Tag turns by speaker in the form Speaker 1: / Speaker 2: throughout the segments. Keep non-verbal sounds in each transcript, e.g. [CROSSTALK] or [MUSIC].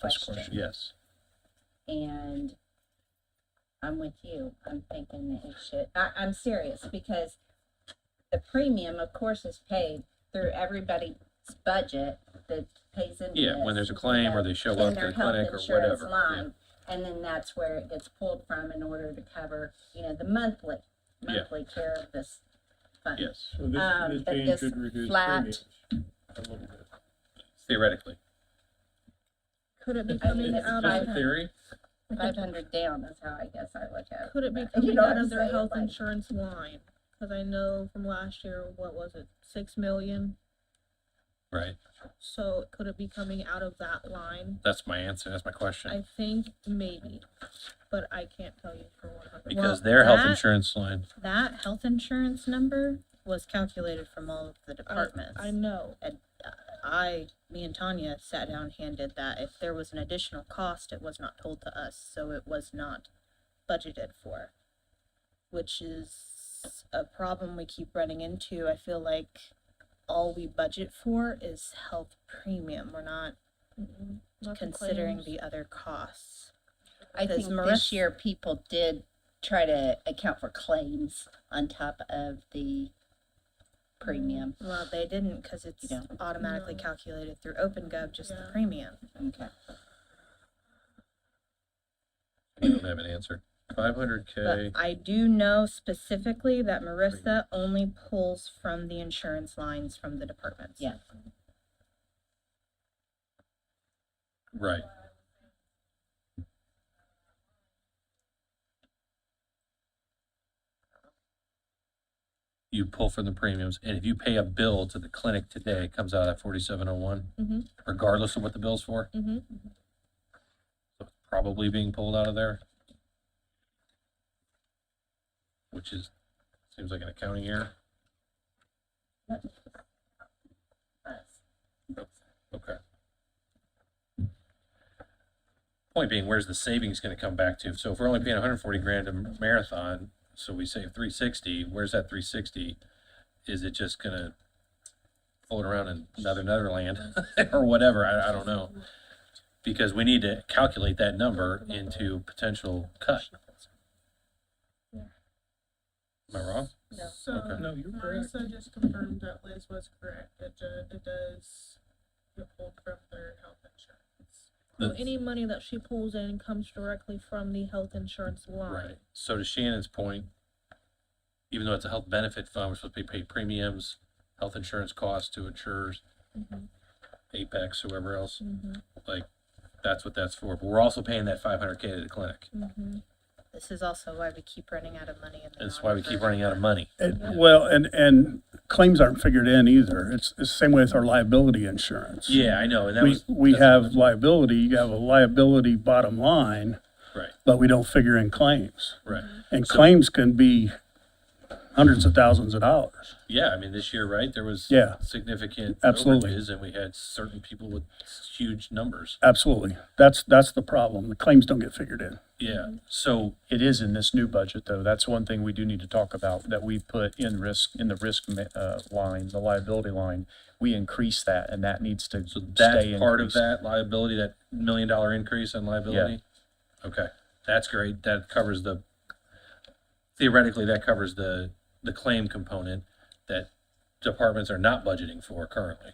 Speaker 1: First question, yes.
Speaker 2: and I'm with you. I'm thinking that it should. I, I'm serious because the premium, of course, is paid through everybody's budget that pays into
Speaker 1: Yeah, when
Speaker 2: this,
Speaker 1: there's a claim or
Speaker 2: you know,
Speaker 1: they show
Speaker 2: in
Speaker 1: up to
Speaker 2: their
Speaker 1: the
Speaker 2: health
Speaker 1: clinic or
Speaker 2: insurance
Speaker 1: whatever. yeah.
Speaker 2: line, and then that's where it gets pulled from in order to cover, you know, the monthly
Speaker 1: Yeah.
Speaker 2: monthly care of this fund.
Speaker 1: Yes,
Speaker 3: So this,
Speaker 2: Um,
Speaker 3: this
Speaker 2: but
Speaker 3: change
Speaker 2: this
Speaker 3: could reduce
Speaker 2: flat-
Speaker 3: premiums a little bit.
Speaker 1: theoretically.
Speaker 4: Could it be
Speaker 2: I mean,
Speaker 4: coming
Speaker 2: it's
Speaker 4: out
Speaker 2: five
Speaker 4: of,
Speaker 2: hundred.
Speaker 1: theory?
Speaker 2: Five hundred down is how I guess I look at it.
Speaker 4: could it be
Speaker 2: but- you
Speaker 4: coming
Speaker 2: know
Speaker 4: out
Speaker 2: what I'm
Speaker 4: of their
Speaker 2: saying,
Speaker 4: health
Speaker 2: like-
Speaker 4: insurance line? Cause I know from last year, what was it, six million?
Speaker 1: Right,
Speaker 4: So could it be coming out of that line?
Speaker 1: that's my answer, that's my question.
Speaker 4: I think maybe, but I can't tell you for one hundred.
Speaker 1: Because
Speaker 5: well,
Speaker 1: their health
Speaker 5: that-
Speaker 1: insurance line,
Speaker 5: That health insurance number was calculated from all of the departments. uh,
Speaker 4: I know,
Speaker 5: I, me and Tanya sat down, handed that. If there was an additional cost, it was not told to us, so it was not budgeted for. Which is a problem we keep running into. I feel like all we budget for is health premium. We're not
Speaker 4: Mm-mm, not the
Speaker 5: considering
Speaker 4: claims.
Speaker 5: the other costs.
Speaker 2: I
Speaker 5: Because
Speaker 2: think this
Speaker 5: Marissa-
Speaker 2: year people did try to account for claims on top of the premium.
Speaker 5: Well, they didn't because it's
Speaker 2: Yeah.
Speaker 5: automatically
Speaker 4: No.
Speaker 5: calculated through OpenGov, just the
Speaker 4: Yeah.
Speaker 5: premium.
Speaker 2: Okay.
Speaker 1: I don't have an answer. Five hundred K,
Speaker 5: But I do know specifically that Marissa only pulls from the insurance lines from the departments.
Speaker 2: Yeah.
Speaker 1: right. You pull from the premiums, and if you pay a bill to the clinic today, it comes out of that forty-seven oh one,
Speaker 4: Mhm.
Speaker 1: regardless of what the bill's for,
Speaker 4: Mhm.
Speaker 1: so it's probably being pulled out of there. Which is, seems like an accounting error. Okay. Point being, where's the savings gonna come back to? So if we're only paying hundred and forty grand to Marathon, so we save three sixty, where's that three sixty? Is it just gonna float around in another Netherland [LAUGHS] or whatever? I, I don't know. Because we need to calculate that number into potential cut. Am I wrong?
Speaker 5: No.
Speaker 1: Okay.
Speaker 6: So
Speaker 3: No, you're correct.
Speaker 6: Marissa just confirmed that Liz was correct. It, do- it does get pulled from their health insurance.
Speaker 4: So
Speaker 1: The-
Speaker 4: any money that she pulls in comes directly from the health insurance line.
Speaker 1: Right. So to Shannon's point, even though it's a health benefit fund, we're supposed to be paying premiums, health insurance costs to insurers,
Speaker 4: Mhm.
Speaker 1: Apex, whoever else,
Speaker 4: Mhm,
Speaker 1: like, that's what that's for. But we're also paying that five hundred K to the clinic.
Speaker 4: mhm.
Speaker 5: This is also why we keep running out of money in the.
Speaker 1: That's why we keep
Speaker 5: non-reverting.
Speaker 1: running out of money.
Speaker 7: It- Well, and, and claims aren't figured in either. It's, it's the same way with our liability insurance.
Speaker 1: Yeah, I know, and that
Speaker 7: We,
Speaker 1: was.
Speaker 7: we
Speaker 1: that's-
Speaker 7: have liability, you have a liability bottom line,
Speaker 1: Right,
Speaker 7: but we don't figure in claims.
Speaker 1: right.
Speaker 7: And
Speaker 1: So-
Speaker 7: claims can be hundreds of thousands of dollars.
Speaker 1: Yeah, I mean, this year, right, there was.
Speaker 7: Yeah.
Speaker 1: Significant.
Speaker 7: Absolutely.
Speaker 1: overages, And we had certain people with huge numbers.
Speaker 7: Absolutely. That's, that's the problem. The claims don't get figured in.
Speaker 1: Yeah, so
Speaker 8: It is in this new budget, though. That's one thing we do need to talk about, that we put in risk, in the risk ma- uh, line, the liability line. We increase that, and that needs to
Speaker 1: So that's
Speaker 8: stay
Speaker 1: part of
Speaker 8: increased.
Speaker 1: that liability, that million dollar increase in liability? Okay, that's great. That covers the, theoretically, that covers the, the claim component that departments are not budgeting for currently.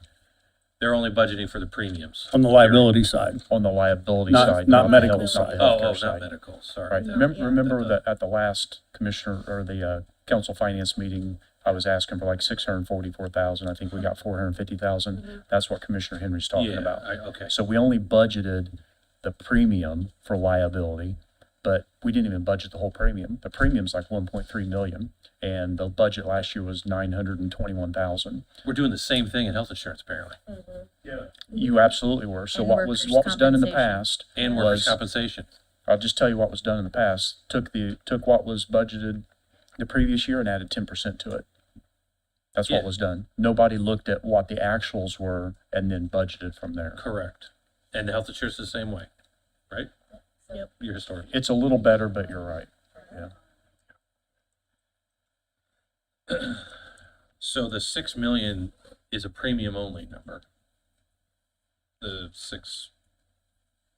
Speaker 1: They're only budgeting for the premiums.
Speaker 7: On the liability side,
Speaker 8: On the liability
Speaker 7: Not-
Speaker 8: side.
Speaker 7: not
Speaker 8: the
Speaker 7: medical
Speaker 8: health-
Speaker 7: side.
Speaker 8: the
Speaker 1: Oh,
Speaker 8: healthcare
Speaker 1: oh,
Speaker 8: side.
Speaker 1: not medical,
Speaker 8: Right.
Speaker 1: sorry.
Speaker 4: No,
Speaker 8: Remem-
Speaker 4: yeah.
Speaker 8: Remember
Speaker 1: That-
Speaker 8: that at the last commissioner or the uh, council finance meeting, I was asking for like six hundred and forty-four thousand. I think we got four hundred and fifty thousand. That's what Commissioner Henry's talking
Speaker 1: Yeah,
Speaker 8: about.
Speaker 1: I, okay,
Speaker 8: So we only budgeted the premium for liability, but we didn't even budget the whole premium. The premium's like one point three million, and the budget last year was nine hundred and twenty-one thousand.
Speaker 1: we're doing the same thing in health insurance apparently,
Speaker 8: You absolutely were. So
Speaker 5: And
Speaker 8: what was,
Speaker 5: workers'
Speaker 8: what was done in the
Speaker 5: compensation.
Speaker 8: past
Speaker 1: and workers'
Speaker 8: was,
Speaker 1: compensation.
Speaker 8: I'll just tell you what was done in the past, took the, took what was budgeted the previous year and added ten percent to it. That's what
Speaker 1: Yeah.
Speaker 8: was done. Nobody looked at what the actuals were and then budgeted from there.
Speaker 1: Correct. And the health insurance is the same way, right?
Speaker 4: Yep.
Speaker 1: Your historian.
Speaker 8: It's a little better, but you're right. Yeah.
Speaker 1: So the six million is a premium only number. The six